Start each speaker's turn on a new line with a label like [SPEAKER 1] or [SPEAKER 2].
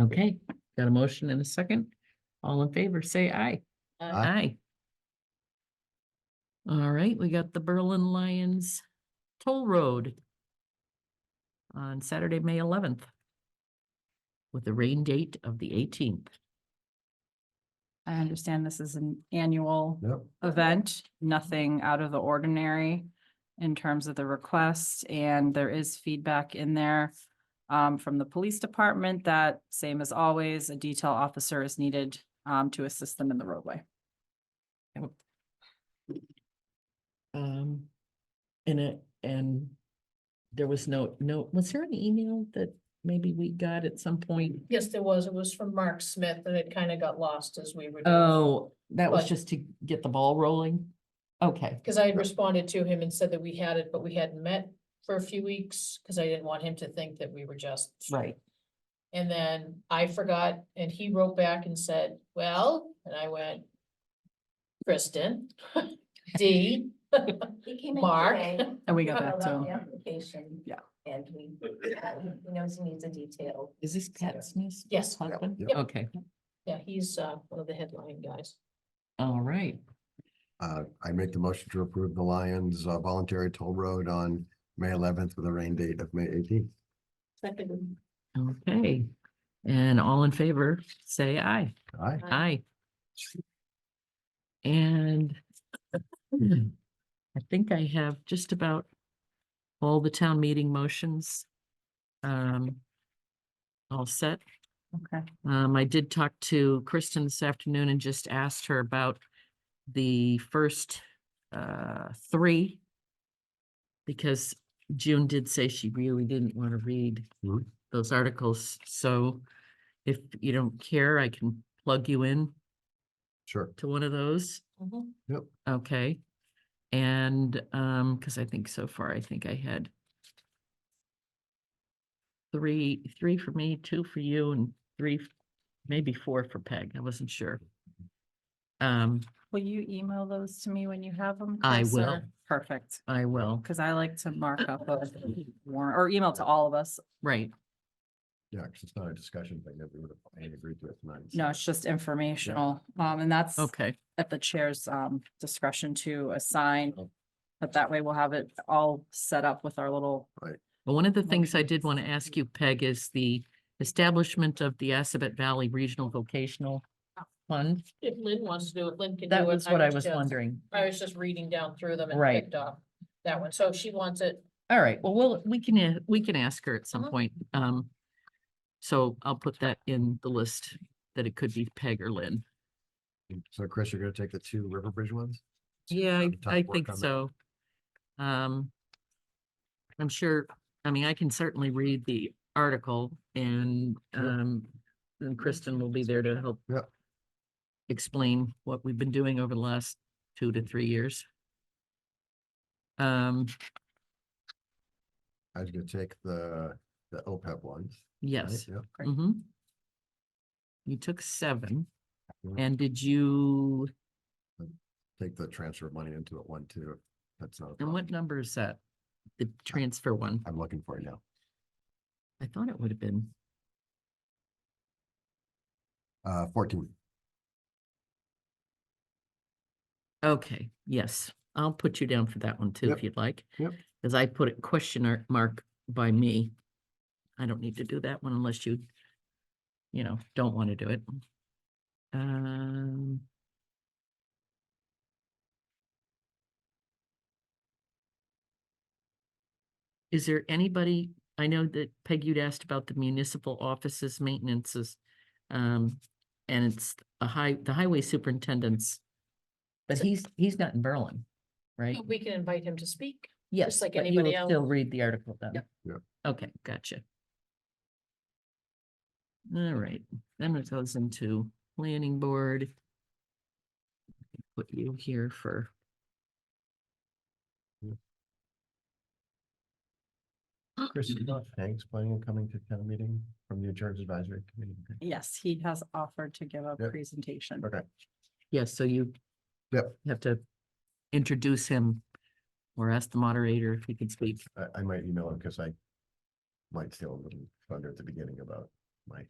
[SPEAKER 1] Okay, got a motion and a second. All in favor, say aye.
[SPEAKER 2] Aye.
[SPEAKER 1] Aye. All right, we got the Berlin Lions Toll Road on Saturday, May eleventh with a rain date of the eighteenth.
[SPEAKER 3] I understand this is an annual
[SPEAKER 2] Yep.
[SPEAKER 3] event, nothing out of the ordinary in terms of the requests, and there is feedback in there um, from the police department that, same as always, a detail officer is needed um, to assist them in the roadway.
[SPEAKER 1] Um, and it, and there was no, no, was there an email that maybe we got at some point?
[SPEAKER 4] Yes, there was. It was from Mark Smith and it kind of got lost as we were.
[SPEAKER 1] Oh, that was
[SPEAKER 4] But-
[SPEAKER 1] just to get the ball rolling? Okay,
[SPEAKER 4] Because I had responded to him and said that we had it, but we hadn't met for a few weeks because I didn't want him to think that we were just.
[SPEAKER 1] right.
[SPEAKER 4] And then I forgot and he wrote back and said, well, and I went, Kristen, D,
[SPEAKER 5] He came in
[SPEAKER 4] Mark.
[SPEAKER 5] today.
[SPEAKER 3] And we
[SPEAKER 5] we
[SPEAKER 3] got that
[SPEAKER 5] filled out
[SPEAKER 3] too.
[SPEAKER 5] the Application.
[SPEAKER 3] Yeah.
[SPEAKER 5] And we, uh, he knows he needs a detail.
[SPEAKER 1] Is this Pat Smith's?
[SPEAKER 4] Yes.
[SPEAKER 1] Husband?
[SPEAKER 2] Yep.
[SPEAKER 1] Okay,
[SPEAKER 4] yeah, he's uh, one of the headline guys.
[SPEAKER 1] all right.
[SPEAKER 2] Uh, I make the motion to approve the Lions uh, voluntary toll road on May eleventh with a rain date of May eighteenth.
[SPEAKER 4] Second.
[SPEAKER 1] Okay, and all in favor, say aye.
[SPEAKER 2] Aye.
[SPEAKER 1] Aye. And I think I have just about all the town meeting motions. Um, all set.
[SPEAKER 3] Okay.
[SPEAKER 1] Um, I did talk to Kristen this afternoon and just asked her about the first, uh, three. Because June did say she really didn't want to read
[SPEAKER 2] Mhm.
[SPEAKER 1] those articles, so if you don't care, I can plug you in
[SPEAKER 2] Sure.
[SPEAKER 1] to one of those.
[SPEAKER 4] Mm-hmm.
[SPEAKER 2] Yep.
[SPEAKER 1] Okay. And, um, because I think so far, I think I had three, three for me, two for you, and three, f- maybe four for Peg. I wasn't sure. Um,
[SPEAKER 3] Will you email those to me when you have them?
[SPEAKER 1] I
[SPEAKER 3] Chris,
[SPEAKER 1] will.
[SPEAKER 3] or- Perfect,
[SPEAKER 1] I will,
[SPEAKER 3] because I like to mark up a warrant or email to all of us.
[SPEAKER 1] right,
[SPEAKER 2] Yeah, 'cause it's not a discussion thing that we would have agreed to it tonight. so-
[SPEAKER 3] No, it's just informational. Um, and that's
[SPEAKER 1] okay,
[SPEAKER 3] at the chair's um discretion to assign.
[SPEAKER 2] Oh.
[SPEAKER 3] But that way we'll have it all set up with our little,
[SPEAKER 1] Well, one of the things I did want to ask you, Peg, is the establishment of the Assabet Valley Regional Vocational Fund.
[SPEAKER 4] If Lynn wants to do it, Lynn can do it.
[SPEAKER 1] That was Oh. what I was
[SPEAKER 4] just-
[SPEAKER 1] wondering.
[SPEAKER 4] I was just reading down through them and
[SPEAKER 1] Right.
[SPEAKER 4] picked up that one. So if she wants it,
[SPEAKER 1] All right, well, we'll, we can, a- we can ask her at some
[SPEAKER 4] Mhm.
[SPEAKER 1] point. Um, so I'll put that in the list that it could be Peg or Lynn.
[SPEAKER 2] So Chris, you're gonna take the two River Bridge ones?
[SPEAKER 1] Yeah, I-
[SPEAKER 2] Tough
[SPEAKER 1] I
[SPEAKER 2] work
[SPEAKER 1] think
[SPEAKER 2] on that.
[SPEAKER 1] so. Um, I'm sure, I mean, I can certainly read the article and,
[SPEAKER 2] Sure.
[SPEAKER 1] um, and Kristen will be there to help
[SPEAKER 2] Yep.
[SPEAKER 1] explain what we've been doing over the last two to three years. Um,
[SPEAKER 2] I was gonna take the, the OPEB ones. right?
[SPEAKER 1] yes.
[SPEAKER 2] Yep.
[SPEAKER 3] Great.
[SPEAKER 1] mhm. You took seven
[SPEAKER 2] Yeah.
[SPEAKER 1] and did you,
[SPEAKER 2] Take the transfer of money into it one too. if That's not. a
[SPEAKER 1] and what
[SPEAKER 2] problem.
[SPEAKER 1] number is that? The transfer one?
[SPEAKER 2] I'm looking for it now.
[SPEAKER 1] I thought it would have been.
[SPEAKER 2] Uh, fourteen.
[SPEAKER 1] Okay, yes, I'll put you down for that one too,
[SPEAKER 2] Yep,
[SPEAKER 1] if you'd like.
[SPEAKER 2] yep.
[SPEAKER 1] Cause I put a question ar- mark by me. I don't need to do that one unless you, you know, don't want to do it. Um. Is there anybody, I know that Peg, you'd asked about the municipal offices maintenances. Um, and it's a high, the highway superintendent's. But he's, he's not in Berlin, right?
[SPEAKER 4] we can invite him to speak.
[SPEAKER 1] Yes,
[SPEAKER 4] like
[SPEAKER 1] but you
[SPEAKER 4] anybody
[SPEAKER 1] will
[SPEAKER 4] else.
[SPEAKER 1] still read the article then.
[SPEAKER 4] Yep.
[SPEAKER 2] Yep.
[SPEAKER 1] Okay, gotcha. All right, then it goes into planning board. Put you here for.
[SPEAKER 2] Chris, you know, thanks planning on coming to town meeting from the insurance advisory committee.
[SPEAKER 3] yes, he has offered to give a
[SPEAKER 2] Yep.
[SPEAKER 3] presentation.
[SPEAKER 2] Okay.
[SPEAKER 1] Yes, so you.
[SPEAKER 2] Yep.
[SPEAKER 1] Have to introduce him or ask the moderator if he can speak.
[SPEAKER 2] I, I might email him because I might steal a little thunder at the beginning about my